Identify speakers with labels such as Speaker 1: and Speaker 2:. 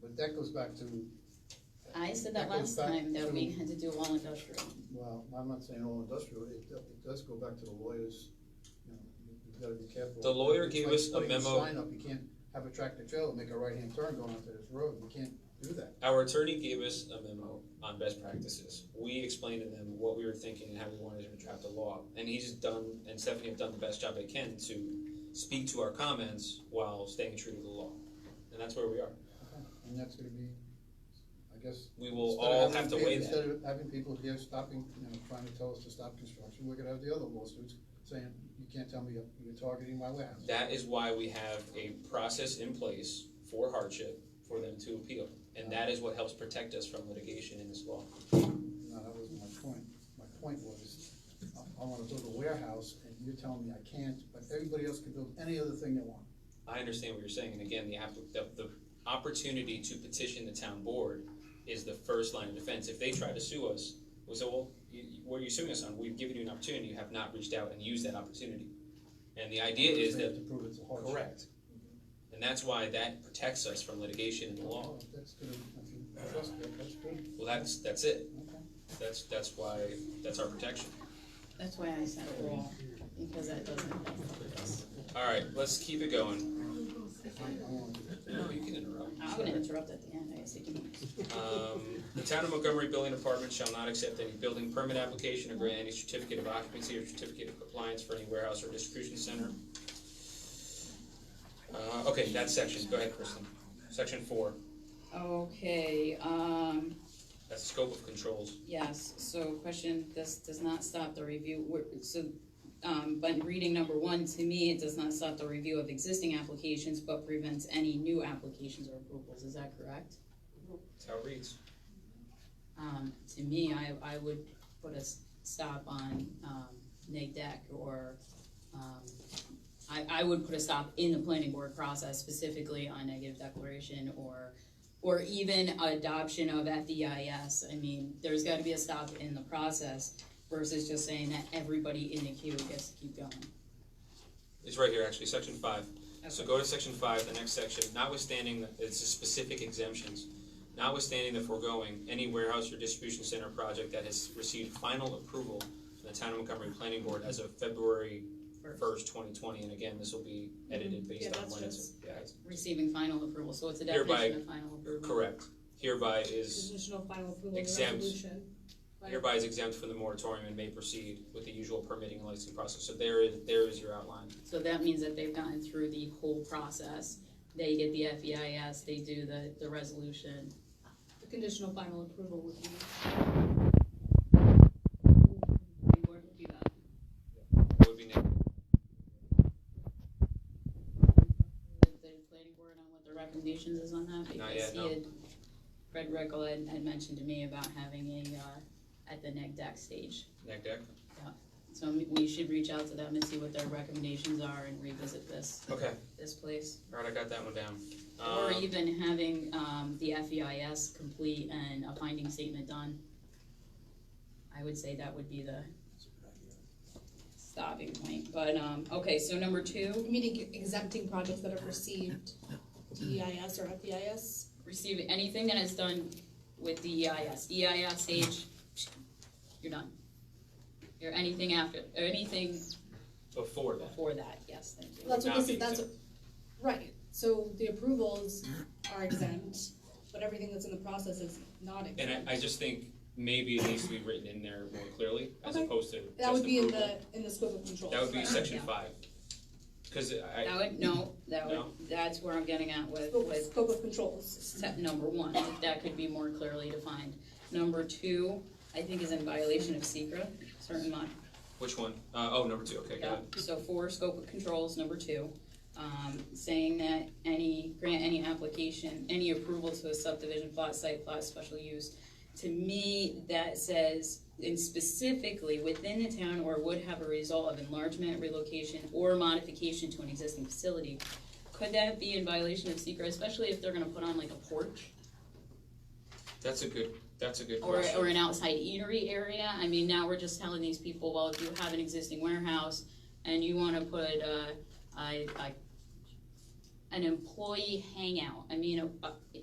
Speaker 1: But that goes back to,
Speaker 2: I said that
Speaker 1: That
Speaker 2: last
Speaker 1: goes back
Speaker 2: time that we
Speaker 1: to-
Speaker 2: had to do all industrial.
Speaker 1: well, I'm not saying all industrial, it, do- it does go back to the lawyers, you know, you- you've gotta be careful.
Speaker 3: The lawyer
Speaker 1: It's
Speaker 3: gave
Speaker 1: like
Speaker 3: us a
Speaker 1: putting
Speaker 3: memo-
Speaker 1: Sign up, you can't have a tractor trailer, make a right-hand turn going onto this road, you can't do that.
Speaker 3: Our attorney gave us a memo on best practices. We explained to them what we were thinking and how we wanted him to draft the law. And he's done, and Stephanie have done the best job they can to speak to our comments while staying true to the law. And that's where we are.
Speaker 1: And that's gonna be, I guess.
Speaker 3: We will
Speaker 1: instead of
Speaker 3: all
Speaker 1: having
Speaker 3: have to
Speaker 1: pe-
Speaker 3: weigh
Speaker 1: Instead
Speaker 3: that.
Speaker 1: of having people here stopping, you know, trying to tell us to stop construction, we're gonna have the other lawsuits saying, you can't tell me you're- you're targeting my warehouse.
Speaker 3: That is why we have a process in place for hardship for them to appeal. And that is what helps protect us from litigation in this law.
Speaker 1: No, that wasn't my point. My point was, I, I wanna build a warehouse, and you're telling me I can't, but everybody else can build any other thing they want.
Speaker 3: I understand what you're saying, and again, the app, the, the opportunity to petition the town board is the first line of defense. If they try to sue us, we say, well, you, you- what are you suing us on? We've given you an opportunity, you have not reached out and used that opportunity. And the idea is
Speaker 1: They have
Speaker 3: that,
Speaker 1: To prove it's a hardship.
Speaker 3: correct. And that's why that protects us from litigation in the law.
Speaker 1: Oh, That's good, if you trust that, that's good,
Speaker 3: Well, that's, that's it.
Speaker 1: okay.
Speaker 3: That's, that's why, that's our protection.
Speaker 2: That's why I said all, because that doesn't help us.
Speaker 3: All right, let's keep it going.
Speaker 1: I I want to-
Speaker 3: No, you can interrupt.
Speaker 2: I'm gonna interrupt at the end, I guess you can.
Speaker 3: Um, the town of Montgomery Building Department shall not accept any building permit application or grant any certificate of occupancy or certificate of compliance for any warehouse or distribution center. Uh, okay, that section, go ahead, Kristen. Section four,
Speaker 2: Okay, um,
Speaker 3: that's the scope of controls.
Speaker 2: yes, so question, this does not stop the review, we're- so, um, but reading number one, to me, it does not stop the review of existing applications, but prevents any new applications or approvals, is that correct?
Speaker 3: That's how it reads.
Speaker 2: Um, to me, I, I would put a s- stop on, um, neg deck or, um, I, I would put a stop in the planning board process specifically on negative declaration or, or even adoption of at the EIS. I mean, there's gotta be a stop in the process versus just saying that everybody in the queue gets to keep going.
Speaker 3: It's right here, actually, section five. So go to section five, the next section, notwithstanding, the- it's the specific exemptions. Notwithstanding the foregoing, any warehouse or distribution center project that has received final approval from the town of Montgomery Planning Board as of February first, twenty twenty, and again, this will be edited
Speaker 4: Mm-hmm. Yeah,
Speaker 3: based on
Speaker 4: that's
Speaker 3: when it's. Yeah, it's-
Speaker 2: Receiving final approval, so it's a
Speaker 3: Hereby-
Speaker 2: definition of final approval.
Speaker 3: Correct. Hereby is,
Speaker 4: Conditional final approval of the
Speaker 3: Exempt.
Speaker 4: resolution. Right.
Speaker 3: hereby is exempt from the moratorium and may proceed with the usual permitting and licensing process. So there is, there is your outline.
Speaker 2: So that means that they've gotten through the whole process. They get the FEIS, they do the, the resolution.
Speaker 4: The conditional final approval would be. The board would do that.
Speaker 3: What would be next?
Speaker 2: The the planning board on what the recommendations is on that?
Speaker 3: Not yet,
Speaker 2: Because
Speaker 3: no.
Speaker 2: he had, Fred Rickle had, had mentioned to me about having a, uh, at the neg deck stage.
Speaker 3: Neg deck?
Speaker 2: So we- we should reach out to them and see what their recommendations are and revisit this,
Speaker 3: Okay,
Speaker 2: this place.
Speaker 3: all right, I got that one down.
Speaker 2: Or
Speaker 3: Um,
Speaker 2: even having, um, the FEIS complete and a finding statement done. I would say that would be the stopping point, but, um, okay, so number two,
Speaker 4: Meaning exempting projects that have received DEIS or E FEIS.
Speaker 2: receive anything that is done with the E EIS, EIS age, you're done. Or anything after, or anything
Speaker 3: Before that.
Speaker 2: before that, yes, thank you.
Speaker 4: That's what
Speaker 3: not
Speaker 4: this
Speaker 3: be
Speaker 4: is, that's, what- right, so the approvals are exempt, but everything that's in the process is not exempt.
Speaker 3: And I, I just think maybe it needs to be written in there more clearly, as
Speaker 4: Okay.
Speaker 3: opposed to
Speaker 4: That
Speaker 3: just
Speaker 4: would be in
Speaker 3: approval.
Speaker 4: the, in the scope of control.
Speaker 3: That would be section
Speaker 2: Yeah.
Speaker 3: five. Cause I,
Speaker 2: That would, no, that would,
Speaker 3: No?
Speaker 2: that's where I'm getting at with,
Speaker 4: Scope,
Speaker 2: with
Speaker 4: scope of controls.
Speaker 2: step number one, that could be more clearly defined. Number two, I think is in violation of secret, certain mod,
Speaker 3: which one? Uh, oh, number two, okay, got
Speaker 2: yeah,
Speaker 3: it.
Speaker 2: so for scope of controls, number two. Um, saying that any, grant any application, any approval to a subdivision plot, site plot, special use. To me, that says, and specifically within the town or would have a result of enlargement, relocation, or modification to an existing facility. Could that be in violation of secret, especially if they're gonna put on like a porch?
Speaker 3: That's a good, that's a good
Speaker 2: Or, or
Speaker 3: question.
Speaker 2: an outside eatery area, I mean, now we're just telling these people, well, if you have an existing warehouse and you wanna put, uh, a, a, an employee hangout, I mean, a- a-